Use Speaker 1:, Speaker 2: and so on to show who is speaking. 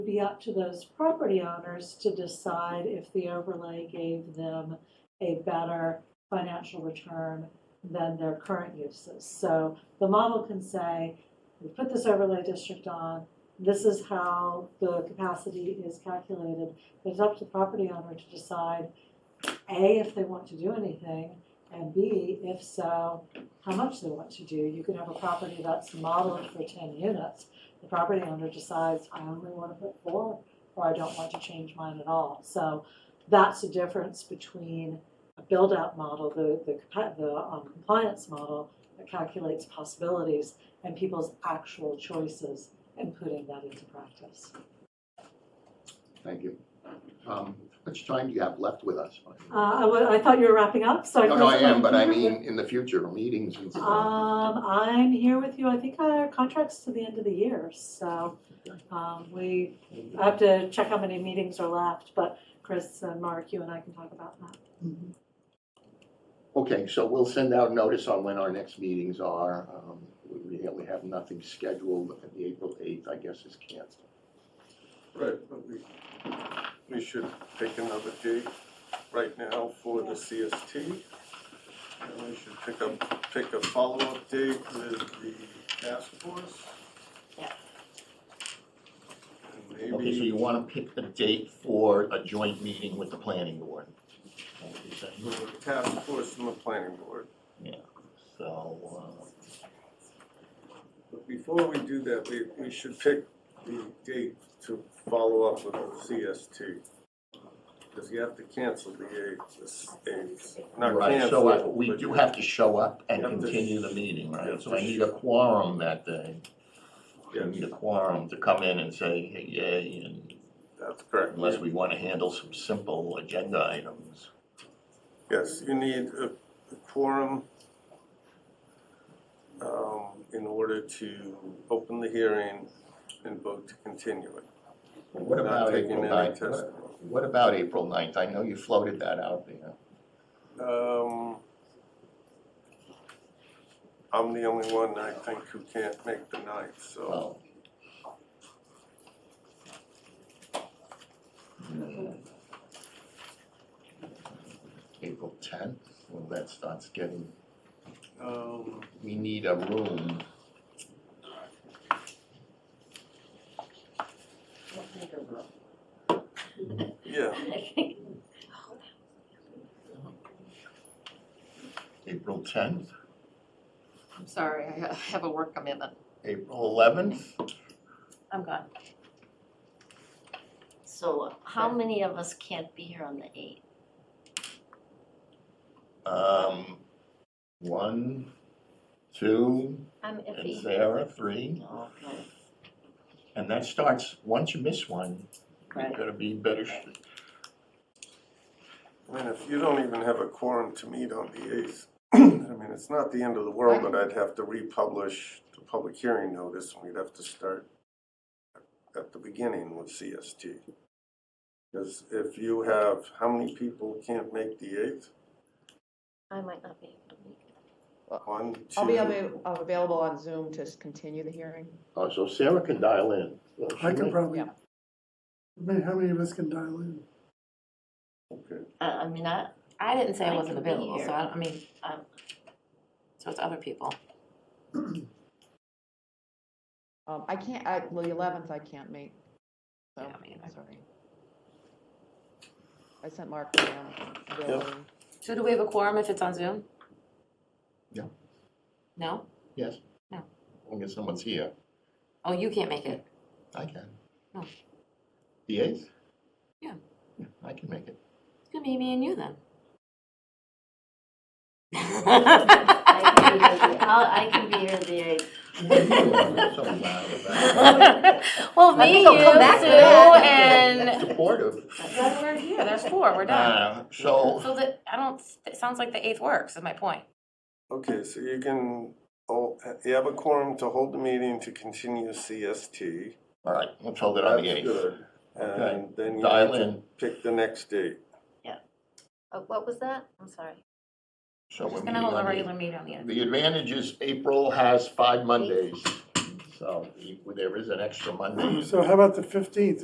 Speaker 1: would be up to those property owners to decide if the overlay gave them a better financial return than their current uses. So the model can say, we put this overlay district on, this is how the capacity is calculated. It's up to the property owner to decide, A, if they want to do anything, and B, if so, how much they want to do. You can have a property that's modeled for ten units, the property owner decides, I only want to put four, or I don't want to change mine at all. So that's the difference between a build-out model, the, the, compa- the um, compliance model that calculates possibilities and people's actual choices and putting that into practice.
Speaker 2: Thank you. Um, How much time do you have left with us?
Speaker 1: Uh, I, wa- I thought you were wrapping up, so I.
Speaker 2: No, no, I
Speaker 1: closed my-
Speaker 2: am, but I mean, in the future, meetings and stuff.
Speaker 1: Um, I'm here with you, I think our contract's to the end of the year, so, um, we, I have to check how many meetings are left, but Chris and Mark, you and I can talk about that.
Speaker 2: Okay, so we'll send out notice on when our next meetings are. Um, We really have nothing scheduled, the April 8th, I guess, is canceled.
Speaker 3: Right, but we, we should pick another date right now for the CST. And we should pick up, pick a follow-up date with the task force.
Speaker 1: Yeah.
Speaker 3: And
Speaker 2: Okay, so
Speaker 3: Maybe,
Speaker 2: you want to pick the date for a joint meeting with the planning board? Is that-
Speaker 3: with the task force and the planning board.
Speaker 2: So, uh,
Speaker 3: But before we do that, we, we should pick the date to follow up with the CST. Because you have to cancel the eighth, this eighth, not
Speaker 2: Right,
Speaker 3: cancel.
Speaker 2: so uh, we
Speaker 3: but
Speaker 2: do
Speaker 3: you-
Speaker 2: have to show up and
Speaker 3: You have to-
Speaker 2: continue the meeting,
Speaker 3: you
Speaker 2: right?
Speaker 3: have
Speaker 2: So
Speaker 3: to
Speaker 2: I need a quorum that day. I
Speaker 3: Yes.
Speaker 2: need a quorum to come in and say, hey, yay, and
Speaker 3: That's correct.
Speaker 2: unless we want to handle some simple agenda items.
Speaker 3: Yes, you need a a quorum um, in order to open the hearing and vote to continue it.
Speaker 2: What
Speaker 3: Not
Speaker 2: about
Speaker 3: taking
Speaker 2: April
Speaker 3: any
Speaker 2: ninth? What-
Speaker 3: testimony.
Speaker 2: What about April ninth? I know you floated that out there.
Speaker 3: Um, I'm the only one, I think, who can't make the ninth, so
Speaker 2: Well. hmm. April tenth, well, that starts getting,
Speaker 3: um,
Speaker 2: we need a room.
Speaker 3: yeah.
Speaker 2: April tenth,
Speaker 4: I'm sorry, I ha- have a work commitment.
Speaker 2: April eleventh,
Speaker 5: I'm gone.
Speaker 6: So how many of us can't be here on the eighth?
Speaker 2: um, one, two,
Speaker 6: I'm
Speaker 2: and
Speaker 6: iffy.
Speaker 2: Sarah, three.
Speaker 6: Okay,
Speaker 2: And that starts, once you miss one, you're
Speaker 6: Right.
Speaker 2: gonna be better. sh-
Speaker 3: I mean, if you don't even have a quorum to meet on the eighth, I mean, it's not the end of the world, but I'd have to republish the public hearing notice, and we'd have to start at the beginning with CST. Because if you have, how many people can't make the eighth?
Speaker 6: I might not be able to make it.
Speaker 3: One, two.
Speaker 5: I'll be avail- uh, available on Zoom to s- continue the hearing.
Speaker 2: Oh, so Sarah can dial in.
Speaker 7: I can probably, I
Speaker 5: Yeah.
Speaker 7: mean, how many of us can dial in?
Speaker 3: Okay.
Speaker 6: Uh, I, I mean, I,
Speaker 8: I didn't say
Speaker 6: I
Speaker 8: I wasn't
Speaker 6: can be
Speaker 8: available,
Speaker 6: here.
Speaker 8: so I, I mean, um, so it's other people.
Speaker 5: Um, I can't, I, well, the eleventh I can't make. So,
Speaker 8: Yeah, me either.
Speaker 5: sorry. I sent Mark down. availability.
Speaker 8: So do we have a quorum if it's on Zoom?
Speaker 2: Yeah.
Speaker 8: No?
Speaker 2: Yes.
Speaker 8: No.
Speaker 2: Only if someone's here,
Speaker 8: Oh, you can't make it.
Speaker 2: I can.
Speaker 4: Oh.
Speaker 8: No.
Speaker 2: The eighth?
Speaker 8: Yeah.
Speaker 2: Yeah, I can make it.
Speaker 8: It's gonna be me and you then.
Speaker 6: I can be here, the- I'll, I can be here the eighth.
Speaker 2: So loud about it.
Speaker 8: Well,
Speaker 5: I
Speaker 8: me,
Speaker 5: think
Speaker 8: you,
Speaker 5: I'll come back to
Speaker 8: Sue,
Speaker 5: that.
Speaker 8: and
Speaker 2: Supportive.
Speaker 8: then we're here, there's four, we're done.
Speaker 2: Uh, so,
Speaker 8: So that, I don't, it sounds like the eighth works, is my point.
Speaker 3: Okay, so you can, oh, you have a quorum to hold the meeting to continue CST.
Speaker 2: all right, let's hold it on the
Speaker 3: That's
Speaker 2: eighth.
Speaker 3: good.
Speaker 2: Okay.
Speaker 3: And then you have
Speaker 2: Dial
Speaker 3: to
Speaker 2: in,
Speaker 3: pick the next date.
Speaker 6: Uh, What was that? I'm sorry.
Speaker 2: so we're
Speaker 8: Just
Speaker 2: meeting
Speaker 8: gonna hold a
Speaker 2: on the eighth.
Speaker 8: regular meeting on the eighth.
Speaker 2: The advantage is April has five Mondays, so e, there is an extra Monday.
Speaker 7: So how about the fifteenth?